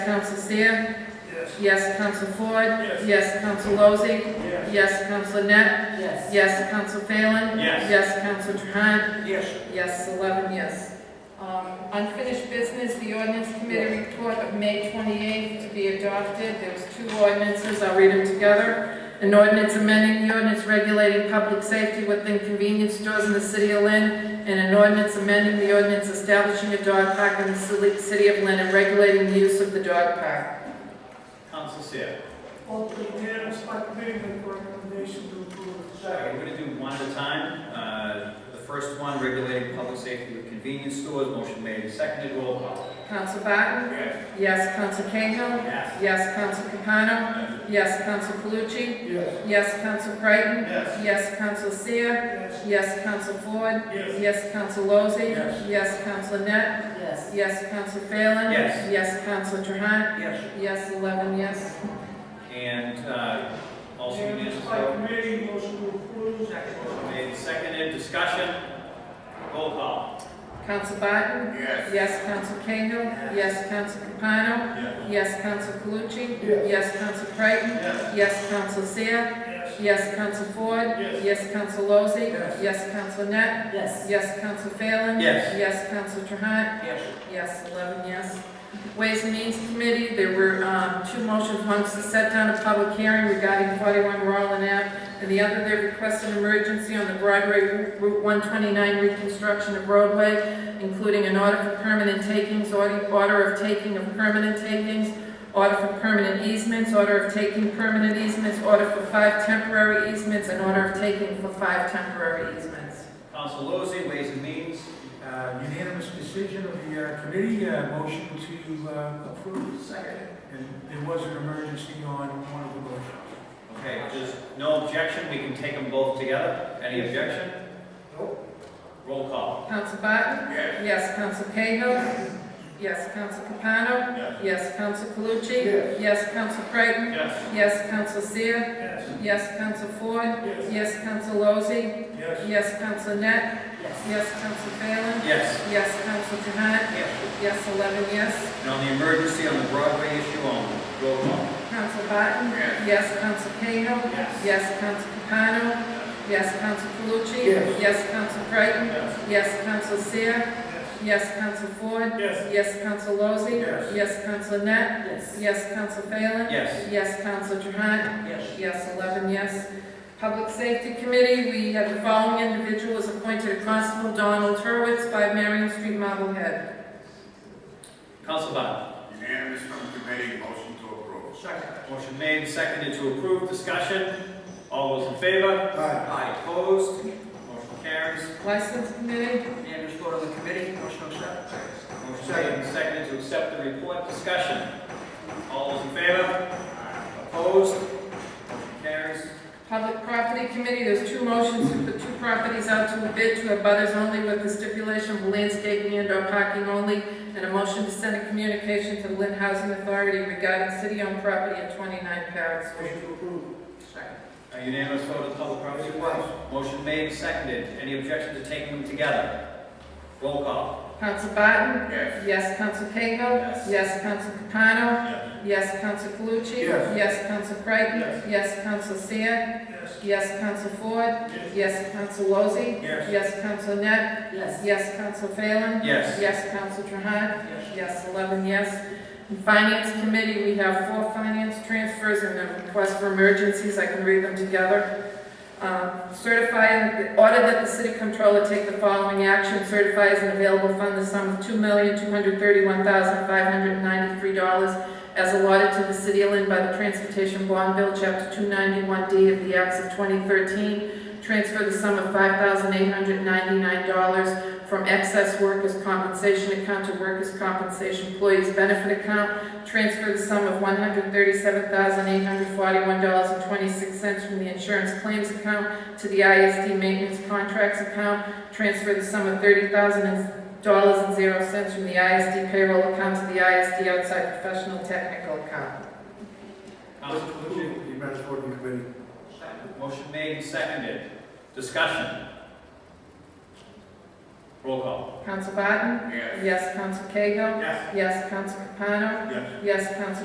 Council Seer? Yes. Yes, Council Ford? Yes. Yes, Council Lozey? Yes. Yes, Council Net? Yes. Yes, Council Phelan? Yes. Yes, Council Trahan? Yes. Yes, eleven yes. Um, Unfinished business, the ordinance committee report of May twenty-eighth to be adopted. There's two ordinances, I'll read them together. An ordinance amending the ordinance regulating public safety within convenience stores in the city of Lynn, and an ordinance amending the ordinance establishing a dog park in the ci- city of Lynn and regulating the use of the dog park. Council Seer. Vote for unanimous by committee with recommendation to approve. Okay, we're gonna do one at a time. Uh, The first one, regulating public safety with convenience stores, motion made and seconded, roll call. Council Barton? Yes. Yes, Council Cahill? Yes. Yes, Council Capano? Yes, Council Calucci? Yes. Yes, Council Creighton? Yes. Yes, Council Seer? Yes. Yes, Council Ford? Yes. Yes, Council Lozey? Yes. Yes, Council Net? Yes. Yes, Council Phelan? Yes. Yes, Council Trahan? Yes. Yes, eleven, yes. And uh, also Unanimous unanimous by vote. committee, motion to approve. Motion made and seconded, discussion, roll call. Council Barton? Yes. Yes, Council Cahill? Yes, Council Capano? Yes. Yes, Council Calucci? Yes. Yes, Council Creighton? Yes. Yes, Council Seer? Yes. Yes, Council Ford? Yes. Yes, Council Lozey? Yes. Yes, Council Net? Yes. Yes, Council Phelan? Yes. Yes, Council Trahan? Yes. Yes, eleven yes. Ways and Means Committee, there were, um, two motions, one was to set down a public hearing regarding forty-one Roland Ave, and the other, they requested an emergency on the Broadway Route one twenty-nine reconstruction of roadway, including an order for permanent takings, order, order of taking of permanent takings, order for permanent easements, order of taking permanent easements, order for five temporary easements, and order of taking for five temporary easements. Council Lozey, Ways and Means, Uh, Unanimous decision of the uh, committee, uh, motion to uh, approve. Second. And there was an emergency on one of the motions. okay, there's no objection, we can take them both together, any objection? Nope. Roll call. Council Barton? Yes. Yes, Council Cahill? Yes, Council Capano? Yes. Yes, Council Calucci? Yes. Yes, Council Creighton? Yes. Yes, Council Seer? Yes. Yes, Council Ford? Yes. Yes, Council Lozey? Yes. Yes, Council Net? Yes. Yes, Council Phelan? Yes. Yes, Council Trahan? Yes. Yes, eleven yes. And on the emergency on the Broadway issue only, roll call. Council Barton? Yes. Yes, Council Cahill? Yes. Yes, Council Capano? Yes, Council Calucci? Yes. Yes, Council Creighton? Yes. Yes, Council Seer? Yes, Council Ford? Yes. Yes, Council Lozey? Yes. Yes, Council Net? Yes. Yes, Council Phelan? Yes. Yes, Council Trahan? Yes. Yes, 11 yes. Public Safety Committee, we have the following individual is appointed Constable Donald Turwitz by Marion Street, Marblehead. Council Biden. Unanimous from committee, motion to approve. Second. Motion made, seconded to approve, discussion. All those in favor? Aye. Aye. Opposed? Motion carries. License Committee, Unanimous vote of the committee, motion to accept. Motion made and seconded to accept the report, discussion. All those in favor? Opposed? Motion carries. Public Property Committee, there's two motions to put two properties out to a bid to abutters only with the stipulation of landscaping and/or parking only, and a motion to send a communication to the Lynn Housing Authority regarding city-owned property at 29 Parrot Street. Motion to approve. Second. A unanimous vote of the public property was. Motion made, and seconded. Any objection to taking them together? Roll call. Council Barton? Yes. Yes, Council Cahill? Yes. Yes, Council Capano? Yes. Yes, Council Calucci? Yes. Yes, Council Creighton? Yes. Yes, Council Seer? Yes. Yes, Council Ford? Yes. Yes, Council Lozey? Yes. Yes, Council Net? Yes. Yes, Council Phelan? Yes. Yes, Council Trahan? Yes. Yes, eleven yes. In Finance Committee, we have four finance transfers and a request for emergencies, I can read them together. Um, Certify, and order that the city controller take the following action, certify as an available fund the sum of two million, two hundred thirty-one thousand, five hundred ninety-three dollars as allotted to the city of Lynn by the Transportation Bond Bill, Chapter two ninety-one D of the Acts of twenty thirteen. Transfer the sum of five thousand, eight hundred ninety-nine dollars from excess workers' compensation account to workers' compensation employees' benefit account. Transfer the sum of one hundred thirty-seven thousand, eight hundred forty-one dollars and twenty-six cents from the insurance claims account to the ISD maintenance contracts account, transfer the sum of thirty thousand dollars and zero cents from the ISD payroll account to the ISD outside professional technical account. Council Calucci. Unanimous vote of the committee. Second. Motion made and seconded. Discussion. Roll call. Counsel Barton? Yes. Yes, Counsel Cahill? Yes. Yes, Counsel Capano? Yes. Yes, Counsel